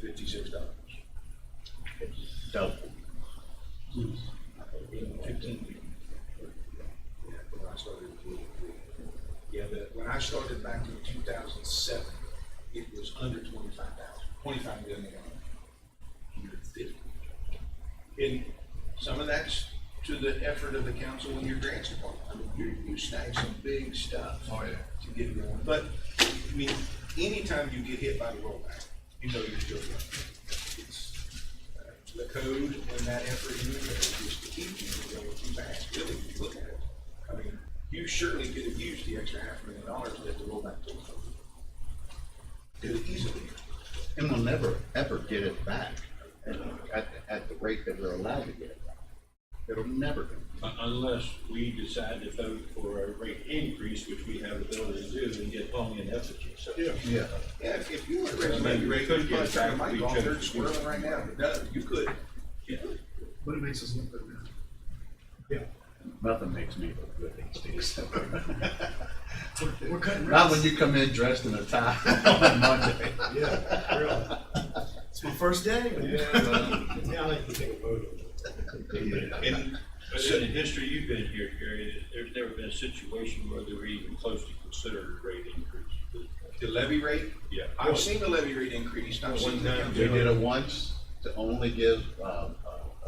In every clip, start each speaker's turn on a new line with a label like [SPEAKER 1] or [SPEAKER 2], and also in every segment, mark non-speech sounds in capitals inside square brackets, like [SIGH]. [SPEAKER 1] fifty-six dollars.
[SPEAKER 2] Dope.
[SPEAKER 1] Yeah, when I started in Blue Creek. Yeah, but when I started back in two thousand seven, it was under twenty-five thousand, twenty-five million dollars. Under fifty. And some of that's to the effort of the council and your grants department. I mean, you, you snag some big stuff.
[SPEAKER 3] Oh, yeah.
[SPEAKER 1] To get it going. But, I mean, anytime you get hit by the rollback, you know you're still running. It's uh, The code and that effort you make is to keep you going too fast, really, if you look at it. I mean, you surely could have used the extra half million dollars that the rollback took. from you. Could have easily.
[SPEAKER 2] And we'll never, ever get it back at, at, at the rate that we're allowed to get it back. It'll never come.
[SPEAKER 4] Un- Unless we decide to vote for a rate increase, which we have the ability to do, and get only an effigy, so.
[SPEAKER 2] Yeah.
[SPEAKER 1] Yeah, if, if you were to recommend your rate,
[SPEAKER 4] Could
[SPEAKER 1] you'd
[SPEAKER 4] get
[SPEAKER 1] probably try to
[SPEAKER 4] back
[SPEAKER 1] make
[SPEAKER 4] to
[SPEAKER 1] all
[SPEAKER 4] each
[SPEAKER 1] third
[SPEAKER 4] other.
[SPEAKER 1] squirrel right now, but no, you could.
[SPEAKER 3] But it makes us look good now.
[SPEAKER 2] Nothing makes me look good these days.
[SPEAKER 3] [LAUGHS] We're cutting
[SPEAKER 2] Not when
[SPEAKER 3] rates.
[SPEAKER 2] you come in dressed in a tie [LAUGHS] on Monday.
[SPEAKER 3] Yeah, really. It's my first day. [LAUGHS]
[SPEAKER 5] Yeah, I like to take a vote on that.
[SPEAKER 4] And, but in the history you've been here, Gary, there's never been a situation where they were even close to consider a rate increase.
[SPEAKER 1] The levy rate,
[SPEAKER 4] Yeah.
[SPEAKER 1] I've seen the levy rate increase, and I've seen the.
[SPEAKER 4] One time.
[SPEAKER 2] We did it once to only give, uh, uh,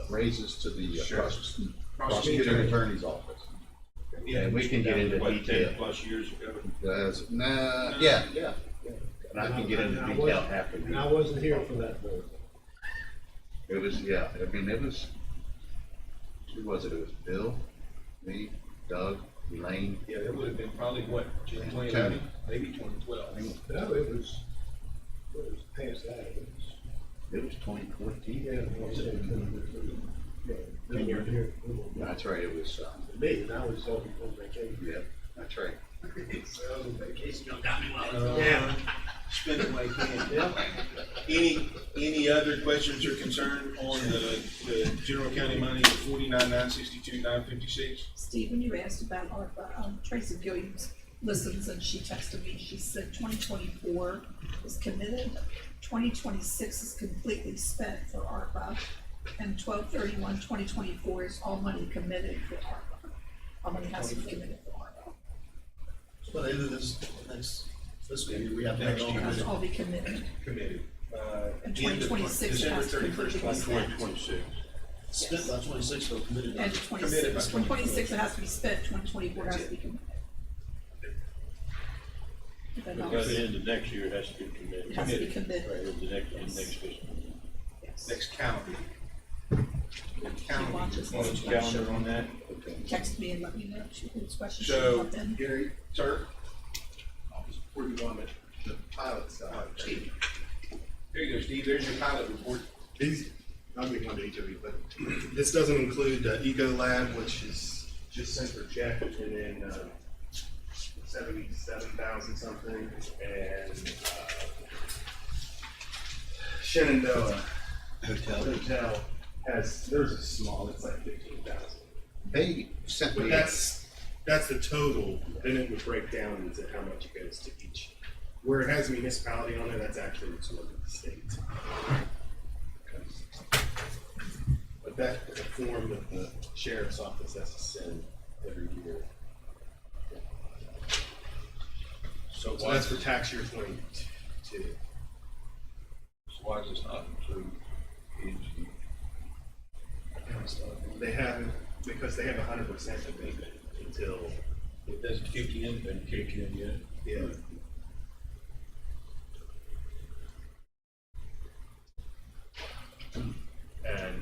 [SPEAKER 2] raises to the uh,
[SPEAKER 1] Sure.
[SPEAKER 2] pros- prosecuting attorney's office.
[SPEAKER 1] Yeah.
[SPEAKER 2] And we can get into
[SPEAKER 4] What, ten
[SPEAKER 2] detail.
[SPEAKER 4] plus years ago?
[SPEAKER 2] That's- nah, yeah, yeah. And I can get into
[SPEAKER 5] And I
[SPEAKER 2] detail
[SPEAKER 5] wasn't-
[SPEAKER 2] after.
[SPEAKER 5] And I
[SPEAKER 2] the-
[SPEAKER 5] wasn't here for that vote.
[SPEAKER 2] It was, yeah, I mean, it was, who was it? It was Bill, me, Doug, Elaine,
[SPEAKER 1] Yeah, that would have been probably what,
[SPEAKER 2] Ten.
[SPEAKER 1] twenty eleven, maybe twenty twelve.
[SPEAKER 5] No, it was, it was past that. It was-
[SPEAKER 2] It was twenty fourteen.
[SPEAKER 5] Yeah, it was- yeah, they weren't here. They weren't here.
[SPEAKER 2] That's right, it was, um,
[SPEAKER 5] For Me, and I was talking on vacation. [LAUGHS]
[SPEAKER 2] yeah, that's right.
[SPEAKER 5] I was on vacation.
[SPEAKER 1] Yeah. Spend it like that. Any, any other questions or concern on the, the general county money, forty-nine, nine sixty-two, nine fifty-six?
[SPEAKER 6] Steve, when you asked about ARPA, um, Tracy Williams listens and she texted me, she said twenty twenty-four is committed, twenty twenty-six is completely spent for ARPA, and 1231-2024 is all money committed for ARPA. All money has to be committed for ARPA,
[SPEAKER 3] But either this, next, this week, we have
[SPEAKER 1] Next
[SPEAKER 3] to.
[SPEAKER 1] year.
[SPEAKER 6] has to all be committed,
[SPEAKER 1] Committed. Uh,
[SPEAKER 6] and
[SPEAKER 1] end
[SPEAKER 6] twenty
[SPEAKER 1] of
[SPEAKER 6] twenty-six
[SPEAKER 1] December
[SPEAKER 6] has to
[SPEAKER 1] 31st,
[SPEAKER 6] completely be spent.
[SPEAKER 4] Twenty-six.
[SPEAKER 3] Spent by twenty-six, but committed. by-
[SPEAKER 6] And
[SPEAKER 1] Committed by
[SPEAKER 6] twenty-six,
[SPEAKER 1] 2024.
[SPEAKER 6] twenty-six it has to be spent, twenty twenty-four has to be committed. If that
[SPEAKER 4] But
[SPEAKER 6] helps.
[SPEAKER 4] by the end of next year, it has to be committed.
[SPEAKER 6] It has to be committed.
[SPEAKER 4] Right, in the next, in the next fiscal.
[SPEAKER 6] Yes.
[SPEAKER 1] Next calendar. year. Next
[SPEAKER 6] She
[SPEAKER 1] Calendar.
[SPEAKER 6] watches
[SPEAKER 4] On the
[SPEAKER 6] this.
[SPEAKER 4] calendar on that?
[SPEAKER 6] Text me and let me know if she has questions.
[SPEAKER 1] So,
[SPEAKER 6] She'll come in.
[SPEAKER 1] Gary, sir,
[SPEAKER 3] Where you want it? The pilot
[SPEAKER 1] uh,
[SPEAKER 3] side.
[SPEAKER 1] Steve. There you go, Steve, there's your pilot report.
[SPEAKER 7] These, I'll be one to each of you, but this doesn't include uh, Eco Lab, which is just sent for check, and then uh, seventy-seven thousand something, and uh, Shenandoah
[SPEAKER 2] Hotel.
[SPEAKER 7] Hotel has, theirs is small, it's like fifteen thousand.
[SPEAKER 2] They sent
[SPEAKER 7] But
[SPEAKER 2] me,
[SPEAKER 7] that's, that's the total, then it would break down into how much it goes to each. Where it has municipality on it, that's actually what's over the state. But that is a form that the sheriff's office has to send every year.
[SPEAKER 1] So
[SPEAKER 7] So that's for tax year twenty-two.
[SPEAKER 1] So why does this not include EG?
[SPEAKER 7] They haven't, because they have a hundred percent abatement until,
[SPEAKER 4] It doesn't kick in, doesn't kick in yet.
[SPEAKER 7] yeah. And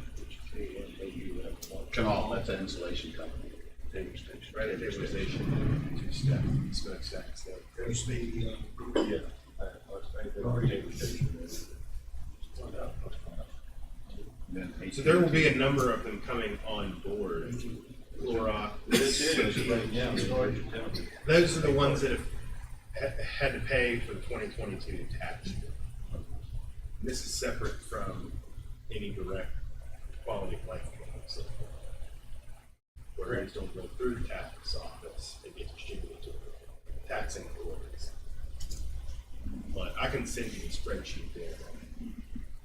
[SPEAKER 2] come on, that's an insulation company.
[SPEAKER 7] Right at the station. Two step, smoke stack, so.
[SPEAKER 3] Used to be, uh,
[SPEAKER 4] Yeah. I- I- I- already taken.
[SPEAKER 7] So there will be a number of them coming on board. Laura,
[SPEAKER 4] This is right now, it's already down.
[SPEAKER 7] those are the ones that have ha- had to pay for the twenty twenty-two tax. year. This is separate from any direct quality of life. claims. Whereas don't go through the tax office, it gets distributed to the taxing authorities. But I can send you a spreadsheet there.